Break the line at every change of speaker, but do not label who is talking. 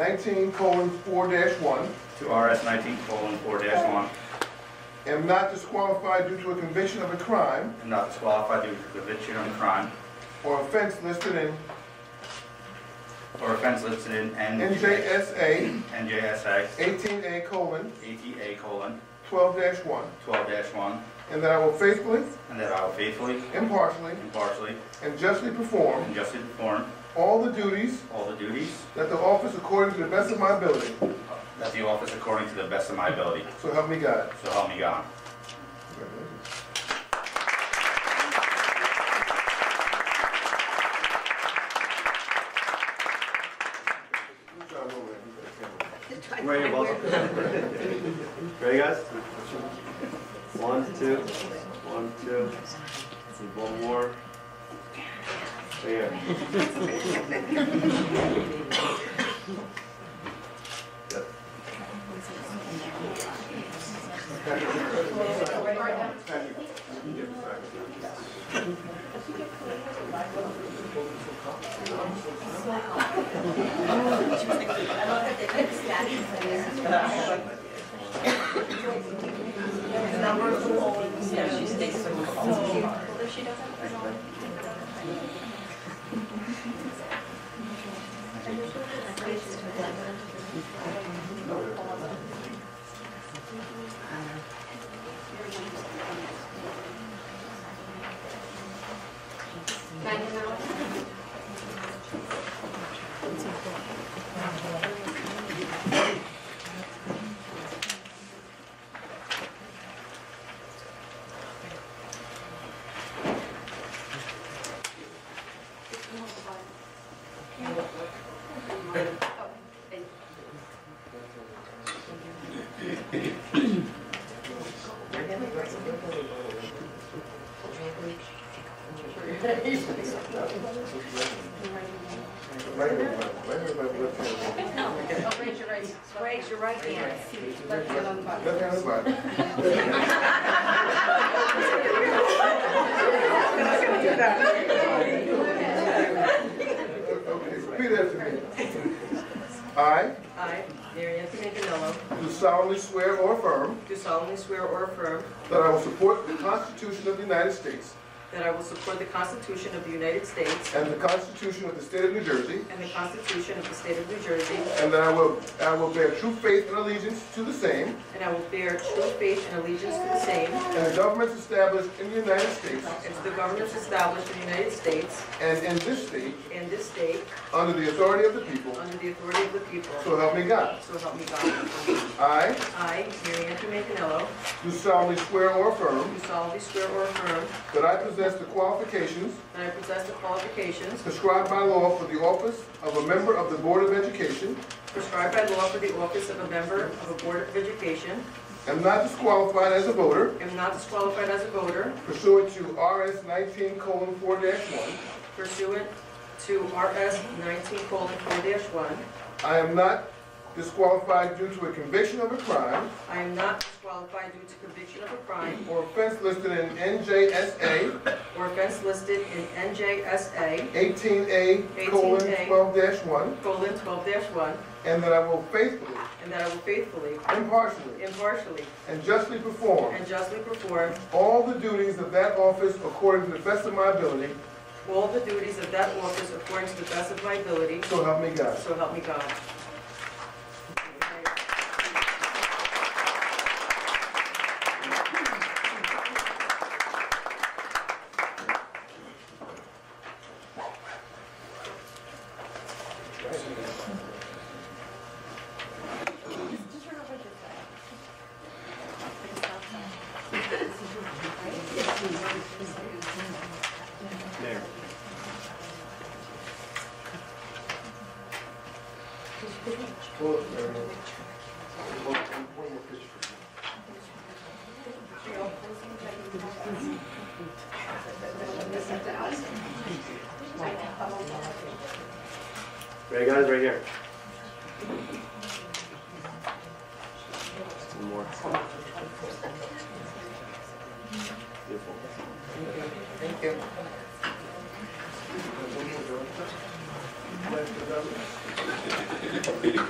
nineteen colon four one,
to RS nineteen colon four one,
am not disqualified due to a conviction of a crime
and not disqualified due to conviction on crime
or offense listed in
or offense listed in NJ
NJSA
NJSA
eighteen A colon
ATA colon
twelve one,
twelve one,
and that I will faithfully,
and that I will faithfully,
impartially,
impartially,
and justly perform
and justly perform
all the duties
all the duties
that the office according to the best of my ability,
of the office according to the best of my ability.
so help me God.
So help me God.
Where you're welcome. Ready, guys? One, two, one, two. One more. Right here.
Megan Miller. Oh, thank you. Oh, raise your right, raise your right hand. Left hand on the Bible.
Okay, repeat after me. I
I, Mary Anthony Ganello,
do solemnly swear or affirm
do solemnly swear or affirm
that I will support the Constitution of the United States
that I will support the Constitution of the United States
and the Constitution of the State of New Jersey,
and the Constitution of the State of New Jersey,
and that I will, I will bear true faith and allegiance to the same
and I will bear true faith and allegiance to the same
and the governments established in the United States
and to the governments established in the United States
and in this state
and this state
under the authority of the people,
under the authority of the people.
so help me God.
So help me God.
I
I, Mary Anthony Ganello,
do solemnly swear or affirm
do solemnly swear or affirm
that I possess the qualifications
that I possess the qualifications
prescribed by law for the office of a member of the Board of Education,
prescribed by law for the office of a member of a Board of Education,
am not disqualified as a voter
am not disqualified as a voter,
pursuant to RS nineteen colon four one.
pursuant to RS 19:4-1.
I am not disqualified due to a conviction of a crime
I am not disqualified due to conviction of a crime
or offense listed in NJSA
or offense listed in NJSA
eighteen A colon twelve one,
12-1,
and that I will faithfully,
and that I will faithfully,
impartially,
impartially,
and justly perform
and justly perform
all the duties of that office according to the best of my ability,
all the duties of that office according to the best of my ability,
so help me God.
so help me God.
There.
Pull up there. One- one more picture.
Ready, guys? Right here. One more. Beautiful.
Thank you.